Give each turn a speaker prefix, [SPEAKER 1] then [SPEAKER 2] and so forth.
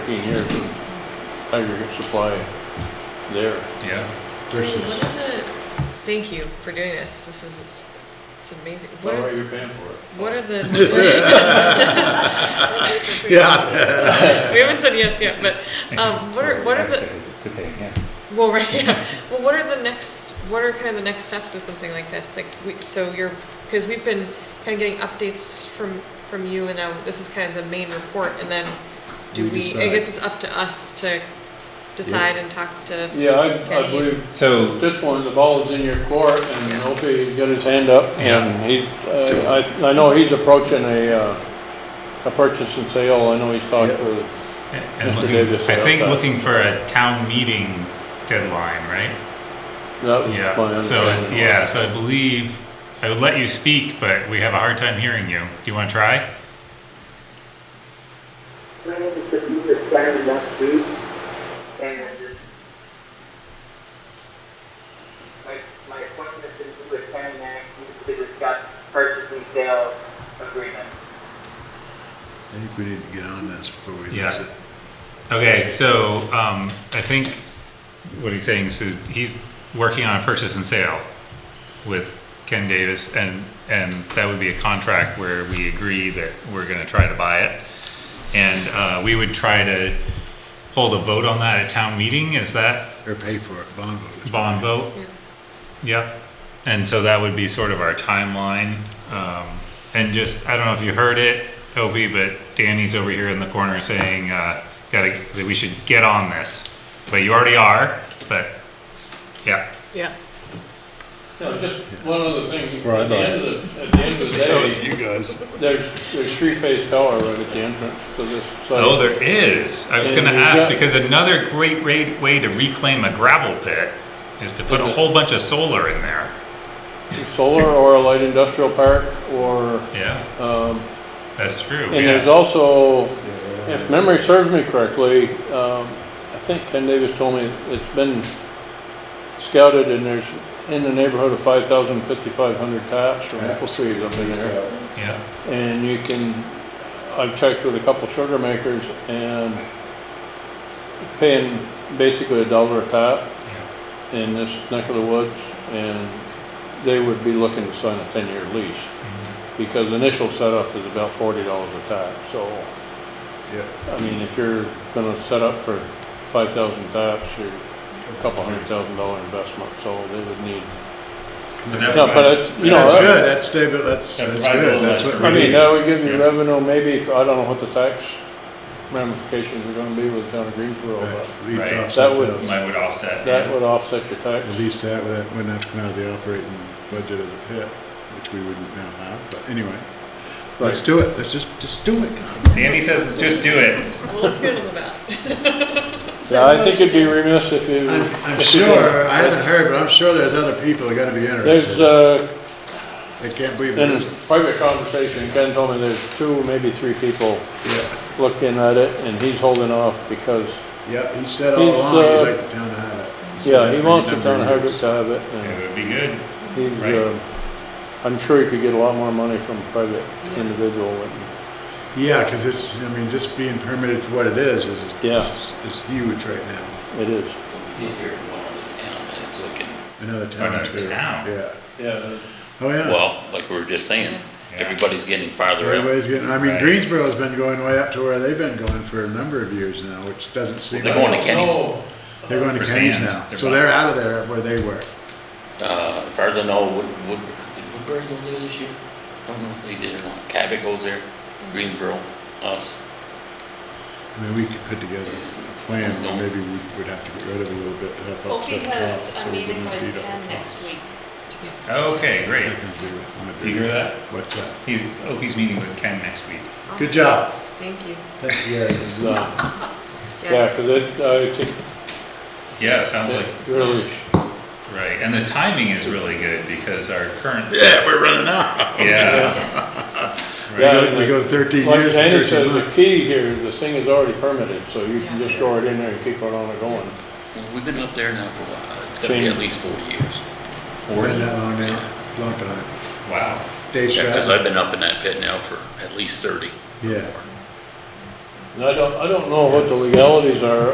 [SPEAKER 1] fifteen years of aggregate supply there.
[SPEAKER 2] Yeah,
[SPEAKER 3] What
[SPEAKER 2] versus,
[SPEAKER 3] are the- Thank you for doing this, this is, it's amazing. What
[SPEAKER 1] Well,
[SPEAKER 3] are,
[SPEAKER 1] you're paying for it.
[SPEAKER 3] what are the? Yeah. We haven't said yes yet, but, um, what are, what are the,
[SPEAKER 4] To pay, yeah.
[SPEAKER 3] well, right, yeah, well, what are the next, what are kind of the next steps with something like this? Like, we, so you're, because we've been kind of getting updates from, from you, and now this is kind of the main report, and then do
[SPEAKER 2] We
[SPEAKER 3] we, I
[SPEAKER 2] decide.
[SPEAKER 3] guess it's up to us to decide and talk to,
[SPEAKER 1] Yeah, I, I
[SPEAKER 3] Can you-
[SPEAKER 1] believe
[SPEAKER 4] So,
[SPEAKER 1] at this point, the ball is in your court and Opie got his hand up and he's, uh, I, I know he's approaching a, uh, a purchase and sale. I know he's talked with,
[SPEAKER 2] and
[SPEAKER 1] Mr.
[SPEAKER 2] looking,
[SPEAKER 1] Davis
[SPEAKER 2] I
[SPEAKER 1] said
[SPEAKER 2] think
[SPEAKER 1] that.
[SPEAKER 2] looking for a town meeting deadline, right?
[SPEAKER 1] that was my
[SPEAKER 2] Yeah, so,
[SPEAKER 1] understanding.
[SPEAKER 2] yeah, so I believe, I would let you speak, but we have a hard time hearing you. Do you wanna try?
[SPEAKER 5] trying to produce a plan last week, and I just my my appointment is due at ten next to discuss purchase and sale agreement.
[SPEAKER 6] I think we need to get on this before we lose
[SPEAKER 2] Yeah.
[SPEAKER 6] it.
[SPEAKER 2] Okay, so, um, I think what he's saying, so he's working on a purchase and sale with Ken Davis, and, and that would be a contract where we agree that we're gonna try to buy it. And, uh, we would try to hold a vote on that at town meeting, is that
[SPEAKER 6] Or pay for it, bond vote.
[SPEAKER 2] bond vote?
[SPEAKER 3] Yeah.
[SPEAKER 2] Yep. And so that would be sort of our timeline. Um, and just, I don't know if you heard it, Opie, but Danny's over here in the corner saying, uh, gotta, that we should get on this. But you already are, but, yeah.
[SPEAKER 7] Yeah.
[SPEAKER 1] No, just one other thing.
[SPEAKER 4] Right,
[SPEAKER 1] At the end of the, at the end of
[SPEAKER 6] So
[SPEAKER 1] the
[SPEAKER 6] it's you guys.
[SPEAKER 1] day, there's, there's three-phase power right at the entrance to this site.
[SPEAKER 2] Oh, there is. I was
[SPEAKER 1] And
[SPEAKER 2] gonna
[SPEAKER 1] we've
[SPEAKER 2] ask,
[SPEAKER 1] got-
[SPEAKER 2] because another great ra- way to reclaim a gravel pit is to put a whole bunch of solar in there.
[SPEAKER 1] Solar or a light industrial park or,
[SPEAKER 2] Yeah,
[SPEAKER 1] um,
[SPEAKER 2] that's true,
[SPEAKER 1] And there's
[SPEAKER 2] yeah.
[SPEAKER 1] also, if memory serves me correctly, um, I think Ken Davis told me it's been scouted and there's in the neighborhood of 5,000, 5,500 taps from apple trees up in there.
[SPEAKER 2] Yeah,
[SPEAKER 1] And you can, I've checked with a couple sugar makers and paying basically a dollar a tap
[SPEAKER 2] yeah,
[SPEAKER 1] in this neck of the woods, and they would be looking to sign a ten-year lease, because initial setup is about forty dollars a tap, so.
[SPEAKER 6] Yep.
[SPEAKER 1] I mean, if you're gonna set up for five thousand taps, you're a couple hundred thousand dollar investment, so they would need, no, but it's, you know. uh,
[SPEAKER 6] That's
[SPEAKER 1] that-
[SPEAKER 6] good, that's stable, that's,
[SPEAKER 2] That
[SPEAKER 6] that's
[SPEAKER 2] provides a
[SPEAKER 6] good,
[SPEAKER 2] little
[SPEAKER 6] that's
[SPEAKER 2] extra
[SPEAKER 6] what
[SPEAKER 1] I
[SPEAKER 6] we
[SPEAKER 1] mean,
[SPEAKER 6] need.
[SPEAKER 1] that would give you
[SPEAKER 2] Yeah.
[SPEAKER 1] revenue maybe, for- I don't know what the tax ramifications are gonna be with the town of Greensboro,
[SPEAKER 6] Right,
[SPEAKER 1] but
[SPEAKER 6] leave
[SPEAKER 2] Right.
[SPEAKER 6] tops
[SPEAKER 1] That
[SPEAKER 6] up
[SPEAKER 1] would-
[SPEAKER 6] those.
[SPEAKER 2] Mine would offset.
[SPEAKER 1] that would offset your tax.
[SPEAKER 6] At least that, that wouldn't have to come out of the operating budget of the pit, which we wouldn't now have, but anyway. Let's do it, let's just, just do it.
[SPEAKER 2] Danny says, just do it.
[SPEAKER 3] well, let's get on the ballot.
[SPEAKER 1] Yeah, I think it'd be remiss if you.
[SPEAKER 6] I'm, I'm
[SPEAKER 1] if you-
[SPEAKER 6] sure, I haven't heard, but I'm sure there's other people that gotta be
[SPEAKER 1] There's,
[SPEAKER 6] interested.
[SPEAKER 1] uh,
[SPEAKER 6] I can't believe it
[SPEAKER 1] In
[SPEAKER 6] isn't.
[SPEAKER 1] private conversation, Ken told me there's two, maybe three people
[SPEAKER 6] Yeah.
[SPEAKER 1] looking at it, and he's holding off because,
[SPEAKER 6] Yeah, he said all
[SPEAKER 1] He's,
[SPEAKER 6] along he'd
[SPEAKER 1] uh,
[SPEAKER 6] like the town to have it. said
[SPEAKER 1] yeah,
[SPEAKER 6] that
[SPEAKER 1] he
[SPEAKER 6] for a
[SPEAKER 1] wants the
[SPEAKER 6] number
[SPEAKER 1] town
[SPEAKER 6] of
[SPEAKER 1] of Hardwick
[SPEAKER 6] years.
[SPEAKER 1] to have it,
[SPEAKER 2] It
[SPEAKER 1] and
[SPEAKER 2] would be good.
[SPEAKER 1] he's,
[SPEAKER 2] Right.
[SPEAKER 1] uh, I'm sure he could get a lot more money from a private individual. and-
[SPEAKER 6] Yeah, because it's, I mean, just being permitted for what it is is,
[SPEAKER 1] Yeah.
[SPEAKER 6] is is huge right now.
[SPEAKER 1] It is.
[SPEAKER 8] Get here to one of the town and it's looking,
[SPEAKER 6] Another town
[SPEAKER 2] Another
[SPEAKER 6] too.
[SPEAKER 2] town.
[SPEAKER 6] Yeah.
[SPEAKER 1] Yeah.
[SPEAKER 6] Oh, yeah.
[SPEAKER 8] well, like we were just saying,
[SPEAKER 2] Yeah.
[SPEAKER 8] everybody's getting farther out.
[SPEAKER 6] Everybody's getting, I mean,
[SPEAKER 2] Right.
[SPEAKER 6] Greensboro's been going way up to where they've been going for a number of years now, which doesn't seem.
[SPEAKER 8] They're going to
[SPEAKER 6] like-
[SPEAKER 8] Kenny's,
[SPEAKER 6] They're going to
[SPEAKER 2] For
[SPEAKER 6] Kenny's
[SPEAKER 2] sand.
[SPEAKER 6] now.
[SPEAKER 2] They're
[SPEAKER 6] So
[SPEAKER 2] buying-
[SPEAKER 6] they're out of there where they were.
[SPEAKER 8] uh, farther north, Wood, Wood, did Woodbury go there this year? I don't know if they did or not. Cabot goes there, Greensboro, us.
[SPEAKER 6] I mean, we could put together a plan, but maybe we would have to get rid of a little bit to help
[SPEAKER 9] Well,
[SPEAKER 6] offset the
[SPEAKER 9] because
[SPEAKER 6] cost.
[SPEAKER 9] I'm
[SPEAKER 6] so we
[SPEAKER 9] meeting
[SPEAKER 6] wouldn't
[SPEAKER 9] with
[SPEAKER 6] beat up
[SPEAKER 9] Ken
[SPEAKER 6] the
[SPEAKER 9] next
[SPEAKER 6] cost.
[SPEAKER 9] week.
[SPEAKER 2] Okay,
[SPEAKER 6] I
[SPEAKER 2] great.
[SPEAKER 6] can do it. I'm gonna do
[SPEAKER 2] You hear
[SPEAKER 6] it.
[SPEAKER 2] that?
[SPEAKER 6] What's that?
[SPEAKER 2] He's, Opie's meeting with Ken next week.
[SPEAKER 6] Good job.
[SPEAKER 3] Thank you.
[SPEAKER 6] Thank you, Gary. Good
[SPEAKER 1] No.
[SPEAKER 6] luck.
[SPEAKER 1] Yeah, because it's, I think,
[SPEAKER 2] Yeah, sounds like,
[SPEAKER 1] it really,
[SPEAKER 2] right, and the timing is really good because our current,
[SPEAKER 6] Yeah, we're running out.
[SPEAKER 2] yeah.
[SPEAKER 1] Yeah.
[SPEAKER 2] Right.
[SPEAKER 6] We go thirteen
[SPEAKER 1] like
[SPEAKER 6] years, to
[SPEAKER 1] Danny
[SPEAKER 6] thirteen
[SPEAKER 1] says, the
[SPEAKER 6] months.
[SPEAKER 1] key here, the thing is already permitted, so you can
[SPEAKER 3] Yeah.
[SPEAKER 1] just throw it in there and keep it on and going.
[SPEAKER 8] Well, We've been up there now for a while. It's gotta be
[SPEAKER 1] Same.
[SPEAKER 8] at least forty years.
[SPEAKER 6] Been that long now, long time.
[SPEAKER 2] Wow.
[SPEAKER 6] Dave
[SPEAKER 8] Yeah, cause I've
[SPEAKER 6] Stratton,
[SPEAKER 8] been up in that pit now for at least thirty.
[SPEAKER 6] yeah.
[SPEAKER 1] And I don't, I don't know what the legalities are